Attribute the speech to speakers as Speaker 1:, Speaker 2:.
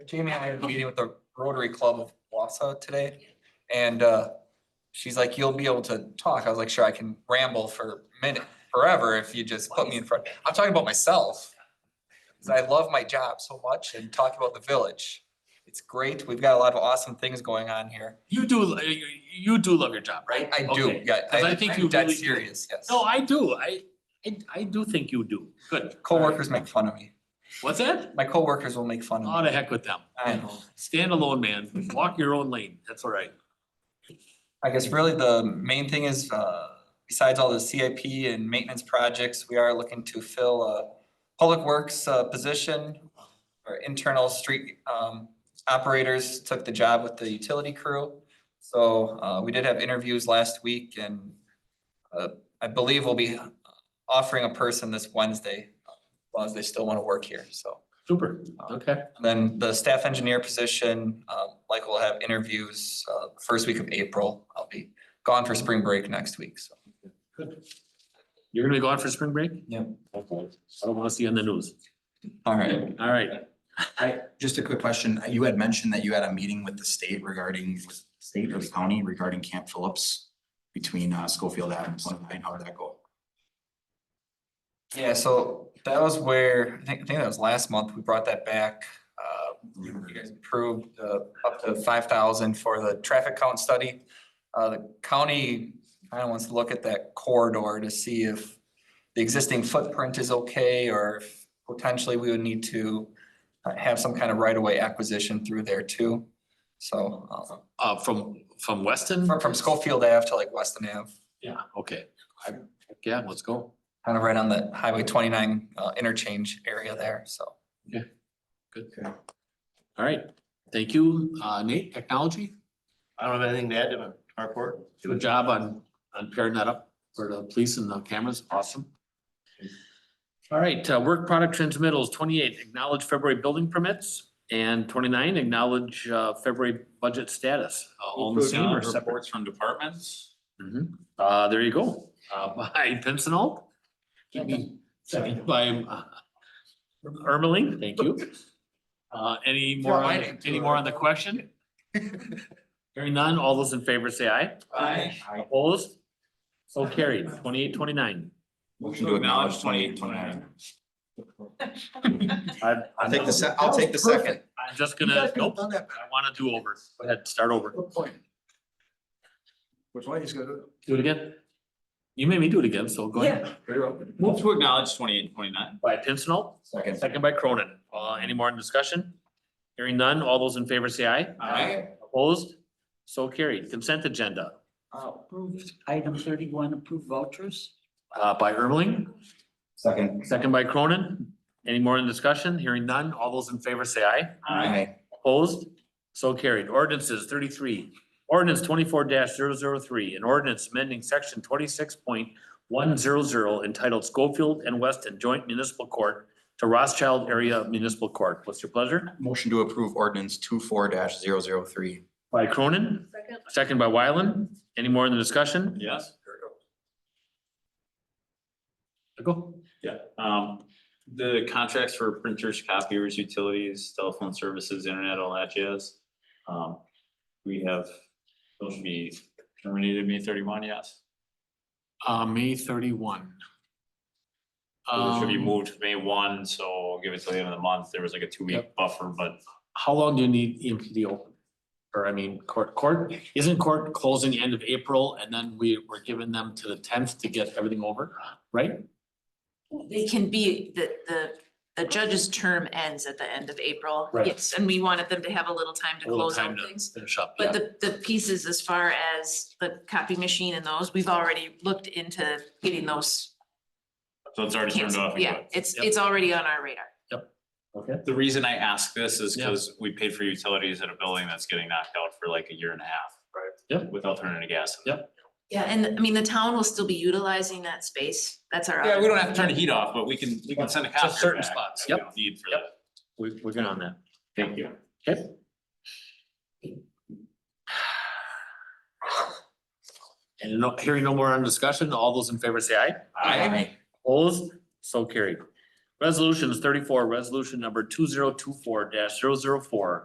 Speaker 1: Jamie and I had a meeting with the Rotary Club of Wausau today, and uh, she's like, you'll be able to talk. I was like, sure, I can ramble for a minute, forever if you just put me in front. I'm talking about myself. 'cause I love my job so much and talking about the village. It's great. We've got a lot of awesome things going on here.
Speaker 2: You do, lo- you- you do love your job, right?
Speaker 1: I do,
Speaker 2: Okay.
Speaker 1: yeah.
Speaker 2: 'Cause I think
Speaker 1: I'm
Speaker 2: you
Speaker 1: Dead
Speaker 2: really do.
Speaker 1: serious, yes.
Speaker 2: No, I do. I, I, I do think you do. Good.
Speaker 1: Coworkers make fun of me.
Speaker 2: What's that?
Speaker 1: My coworkers will make fun
Speaker 2: Oh,
Speaker 1: of me.
Speaker 2: the heck with them.
Speaker 1: I know.
Speaker 2: Stand alone, man. Walk your own lane. That's all right.
Speaker 1: I guess really the main thing is, uh, besides all the CIP and maintenance projects, we are looking to fill a public works, uh, position. Our internal street, um, operators took the job with the utility crew. So, uh, we did have interviews last week and, uh, I believe we'll be offering a person this Wednesday, as long as they still want to work here, so.
Speaker 2: Super. Okay.
Speaker 1: And Then the staff engineer position, um, like we'll have interviews, uh, first week of April. I'll be gone for spring break next week, so.
Speaker 2: You're gonna be gone for spring break?
Speaker 1: Yep.
Speaker 2: Okay. I don't wanna see you on the news.
Speaker 1: All right.
Speaker 2: All right.
Speaker 3: I, just a quick question. You had mentioned that you had a meeting with the state regarding, with state or the county regarding Camp Phillips between uh, Schofield Avenue and Sunline. How did that go?
Speaker 1: Yeah, so that was where, I think, I think that was last month, we brought that back. Uh, you guys approved, uh, up to five thousand for the traffic count study. Uh, the county kind of wants to look at that corridor to see if the existing footprint is okay, or if potentially we would need to uh, have some kind of right-of-way acquisition through there too. So, uh,
Speaker 2: Uh, from, from Weston?
Speaker 1: from, from Schofield Ave to like Weston Ave,
Speaker 2: Yeah, okay. I, yeah, let's go.
Speaker 1: kind of right on the Highway twenty-nine, uh, interchange area there, so.
Speaker 2: All right. Thank you, uh, Nate, technology.
Speaker 4: I don't have anything to add to my report.
Speaker 2: Good job on, on pairing that up for the police and the cameras. Awesome. All right, uh, work product transmittals, twenty-eight, acknowledge February building permits. And twenty-nine, acknowledge, uh, February budget status. Uh, All in the same or separate?
Speaker 5: Reports from departments.
Speaker 2: Mhm. Uh, there you go, uh, by Pincinel. Second by, uh, Ermeling, thank you. Uh, any more, on- any more on the question? Hearing none, all those in favor say aye.
Speaker 5: Aye.
Speaker 2: Opposed? So carried, twenty-eight, twenty-nine.
Speaker 3: Motion to acknowledge twenty-eight, twenty-nine.
Speaker 2: I'll
Speaker 3: I'll take the se- I'll take the second.
Speaker 2: I'm just gonna, nope, I wanna do over, go ahead, start over,
Speaker 3: Which one is good?
Speaker 2: do it again. You made me do it again, so go ahead.
Speaker 5: Move to acknowledge twenty-eight, twenty-nine.
Speaker 2: By Pincinel,
Speaker 3: Second.
Speaker 2: second by Cronin, uh, any more in discussion? Hearing none, all those in favor say aye.
Speaker 5: Aye.
Speaker 2: Opposed? So carried. Consent agenda,
Speaker 6: Uh, Approved, item thirty-one, approved vouchers.
Speaker 2: uh, by Ermeling,
Speaker 3: Second.
Speaker 2: second by Cronin. Any more in discussion? Hearing none. All those in favor say aye.
Speaker 3: Aye.
Speaker 2: Opposed? So carried. Ordinances thirty-three. Ordinance twenty-four 3 an ordinance amending section twenty-six point one zero zero entitled Schofield and Weston Joint Municipal Court to Rothschild Area Municipal Court. What's your pleasure?
Speaker 3: Motion to approve ordinance two four dash zero zero three.
Speaker 2: By Cronin,
Speaker 6: Second.
Speaker 2: second by Wyland. Any more in the discussion?
Speaker 5: Yes.
Speaker 2: Go.
Speaker 5: Yeah. Um, the contracts for printers, copiers, utilities, telephone services, internet, all that jazz. Um, we have, those should be terminated May thirty-one, yes.
Speaker 2: Uh, May thirty-one.
Speaker 5: Those should be
Speaker 2: Um,
Speaker 5: moved to May one, so give it till the end of the month. There was like a two-week
Speaker 2: Yep.
Speaker 5: buffer, but
Speaker 2: How long do you need E EMPD open? Or I mean, court, court, isn't court closing end of April and then we, we're giving them to the tenth to get everything over, right?
Speaker 7: They can be, the, the, the judge's term ends at the end of April.
Speaker 2: Right.
Speaker 7: Yes, and we wanted them to have a little time
Speaker 2: A
Speaker 7: to
Speaker 2: little
Speaker 7: close
Speaker 2: time
Speaker 7: out
Speaker 2: to-
Speaker 7: things.
Speaker 2: Finish up,
Speaker 7: But
Speaker 2: yeah.
Speaker 7: the, the pieces as far as the copy machine and those, we've already looked into getting those.
Speaker 5: so it's already turned
Speaker 7: canceled.
Speaker 5: off. and
Speaker 7: Yeah,
Speaker 5: good.
Speaker 7: it's,
Speaker 2: Yep.
Speaker 7: it's already on our radar.
Speaker 2: Okay.
Speaker 5: The reason I ask this is
Speaker 2: Yeah.
Speaker 5: because we paid for utilities at a building that's getting knocked out for like a year and a half. Right.
Speaker 2: Yep.
Speaker 5: Without turning to gas. in it.
Speaker 7: Yeah, and I mean, the town will still be utilizing that space. That's our.
Speaker 5: Yeah,
Speaker 7: other-
Speaker 5: we don't have to turn the heat off, but we can, we can send a
Speaker 2: To
Speaker 5: copier
Speaker 2: certain
Speaker 5: back
Speaker 2: spots,
Speaker 5: that we
Speaker 2: yep.
Speaker 5: don't Need for
Speaker 2: Yep.
Speaker 5: that.
Speaker 2: We, we're good on that.
Speaker 5: Thank you.
Speaker 2: And no, hearing no more on discussion, all those in favor say aye.
Speaker 5: I,
Speaker 2: Opposed, so carried. Resolutions thirty-four, resolution number two zero two four 4